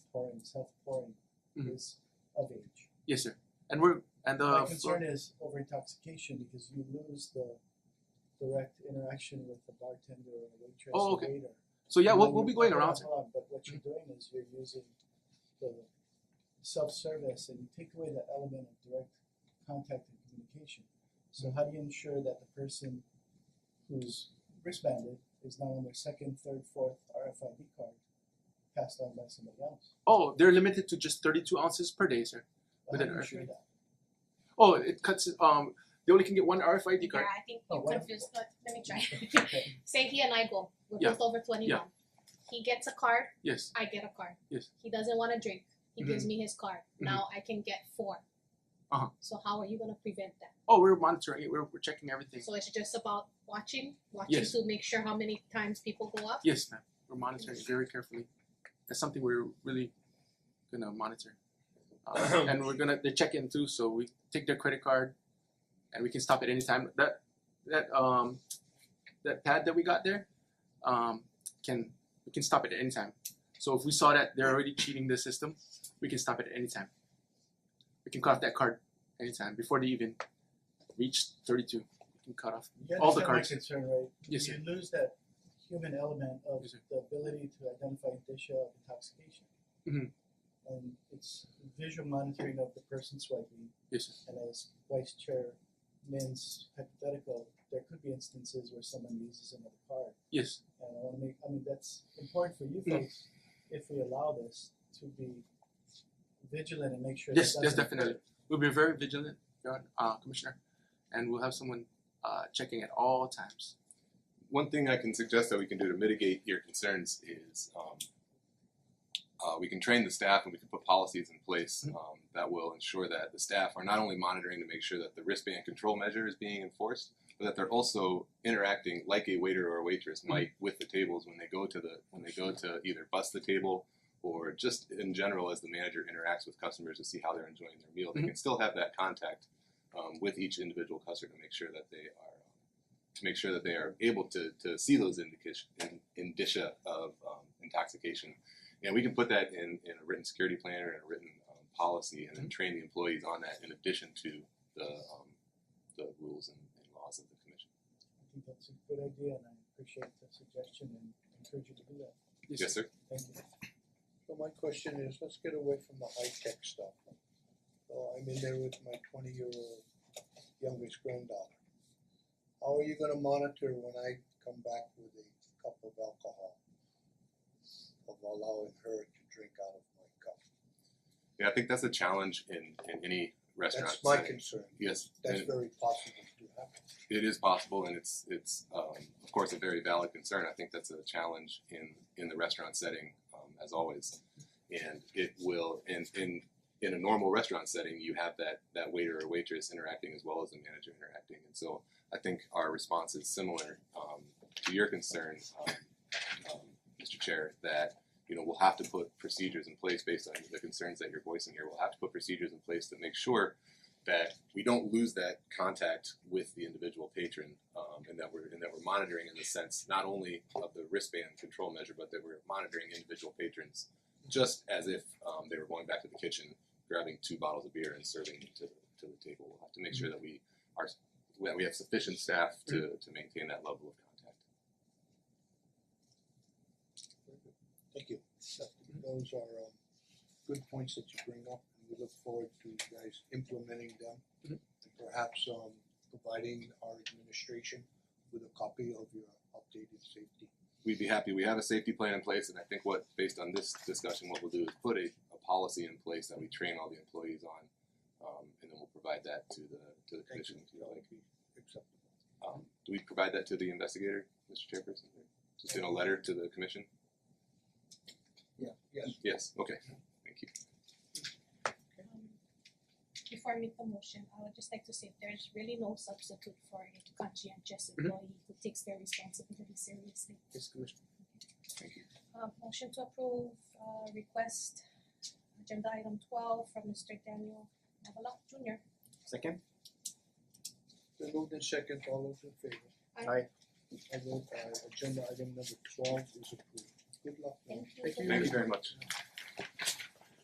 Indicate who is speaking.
Speaker 1: and self-pouring
Speaker 2: Mhm.
Speaker 1: is of age.
Speaker 2: Yes, sir. And we're and uh, the
Speaker 1: My
Speaker 2: flo-
Speaker 1: concern is over intoxication because you lose the direct interaction with the bartender or the waitress
Speaker 2: Oh,
Speaker 1: or
Speaker 2: okay.
Speaker 1: waiter.
Speaker 2: so yeah,
Speaker 1: And
Speaker 2: we'll,
Speaker 1: then
Speaker 2: we'll
Speaker 1: you-
Speaker 2: be going
Speaker 1: hold on,
Speaker 2: around. Mm-hmm. sir.
Speaker 1: hold on, but what you're doing is you're using the self-service and you take away the element of direct contact and communication. So
Speaker 2: Mm-hmm.
Speaker 1: how do you ensure that the person who's wristbanded is not on their second, third, fourth RFID card passed on by somebody else?
Speaker 2: Oh, they're limited to just thirty-two ounces per day, sir.
Speaker 1: But
Speaker 2: With
Speaker 1: how
Speaker 2: an
Speaker 1: do you ensure
Speaker 2: RFID.
Speaker 1: that?
Speaker 2: Oh, it cuts. Um, they only can get one RFID card.
Speaker 3: Yeah, I think
Speaker 1: Oh,
Speaker 3: you
Speaker 1: what?
Speaker 3: could just, let, let me try.
Speaker 1: Okay.
Speaker 3: Say he and I go, we're
Speaker 2: Yeah.
Speaker 3: both over twenty-one. He gets a card,
Speaker 2: Yes.
Speaker 3: I get a card.
Speaker 2: Yes.
Speaker 3: He doesn't wanna drink, he gives me his card,
Speaker 2: Mhm.
Speaker 3: now I can get four.
Speaker 2: Uh-huh.
Speaker 3: So how are you gonna prevent that?
Speaker 2: Oh, we're monitoring it. We're, we're checking everything.
Speaker 3: So it's just about watching, watching
Speaker 2: Yes.
Speaker 3: to make sure how many times people go up?
Speaker 2: Yes, ma'am. We're monitoring it very carefully. That's something we're really gonna monitor. Um, and we're gonna they check in too, so we take their credit card, and we can stop at any time. That that um that pad that we got there, um can we can stop it at any time. So if we saw that they're already cheating the system, we can stop it at any time. We can cut off that card anytime before they even reach thirty-two. We can cut off.
Speaker 1: You
Speaker 2: All the
Speaker 1: understand
Speaker 2: cards.
Speaker 1: My concern, right?
Speaker 2: Yes,
Speaker 1: You lose that human element of
Speaker 2: Yes, sir.
Speaker 1: the ability to identify indicia of intoxication.
Speaker 2: Mhm.
Speaker 1: And it's visual monitoring of the person swiping,
Speaker 2: Yes, sir.
Speaker 1: and as Vice Chair Min's hypothetical, there could be instances where someone uses another card.
Speaker 2: Yes.
Speaker 1: And I wanna make, I mean, that's important for you
Speaker 2: Mhm.
Speaker 1: folks, if we allow this, to be vigilant and make sure that
Speaker 2: Yes,
Speaker 1: doesn't.
Speaker 2: yes, definitely. We'll be very vigilant, Your Honor- uh, Commissioner, and we'll have someone uh, checking at all times.
Speaker 4: one thing I can suggest that we can do to mitigate your concerns is um, uh, we can train the staff and we can put policies in place um, that will ensure that the staff are not only monitoring to make sure that the wristband control measure is being enforced, but that they're also interacting like a waiter or a waitress might with the tables when they go to the when they go to either bust the table or just in general as the manager interacts with customers to see how they're enjoying their meal. They
Speaker 2: Mhm.
Speaker 4: can still have that contact um, with each individual customer to make sure that they are um, to make sure that they are able to, to see those indication, in, indicia of um, intoxication. And we can put that in, in a written security plan or in a written um, policy
Speaker 5: Mm-hmm.
Speaker 4: and then train the employees on that in addition to the, um, the rules and, and laws of the commission.
Speaker 1: I think that's a good idea, and I appreciate the suggestion and encourage you to do that.
Speaker 4: Yes, sir.
Speaker 1: Thank you.
Speaker 5: So my question is, let's get away from the high tech stuff. So I'm in there with my twenty year old youngest granddaughter. How are you gonna monitor when I come back with a cup of alcohol? Of allowing her to drink out of my cup?
Speaker 4: Yeah, I think that's a challenge in, in any restaurant.
Speaker 5: That's my
Speaker 4: setting.
Speaker 5: concern,
Speaker 4: Yes,
Speaker 5: that's
Speaker 4: and
Speaker 5: very possible to happen.
Speaker 4: it is possible, and it's it's um, of course a very valid concern. I think that's a challenge in in the restaurant setting, um, as always, and it will. And in in a normal restaurant setting, you have that that waiter or waitress interacting as well as the manager interacting, and so I think our response is similar um, to your concern, um, um, Mr. Chair, that. You know, we'll have to put procedures in place based on the concerns that you're voicing here. We'll have to put procedures in place to make sure that we don't lose that contact with the individual patron, um, and that we're and that we're monitoring in the sense not only of the wristband control measure, but that we're monitoring individual patrons just as if um, they were going back to the kitchen, grabbing two bottles of beer and serving it to to the table. We'll have to make sure that we are that we have sufficient staff to to maintain that level of contact.
Speaker 5: Thank you. Those are um good points that you bring up and we look forward to you guys implementing them.
Speaker 2: Mhm.
Speaker 5: And perhaps um providing our administration with a copy of your updated safety.
Speaker 4: we'd be happy. We have a safety plan in place, and I think what, based on this discussion, what we'll do is put a, a policy in place that we train all the employees on, um, and then we'll provide that to the to the
Speaker 5: Thank
Speaker 4: commission.
Speaker 5: you,
Speaker 4: If you like,
Speaker 5: acceptable.
Speaker 4: um, do we provide that to the investigator, Mr. Chairperson, just in a letter to the commission?
Speaker 5: Yeah, yes.
Speaker 4: Yes. Okay. Thank you.
Speaker 3: Um, Before I make the motion, I would just like to say there's really no substitute for a conscientious employee who takes their responsibility seriously.
Speaker 2: Yes, Commissioner.
Speaker 3: Uh, motion to approve, uh, request, agenda item twelve from Mister Daniel Navala Junior.
Speaker 2: Second?
Speaker 5: Then moved in second, all those in favor?
Speaker 3: Aye.
Speaker 2: Aye.
Speaker 5: I vote aye, agenda item number twelve is approved. Good luck. ma'am.
Speaker 3: Thank you.
Speaker 4: Thank you very much.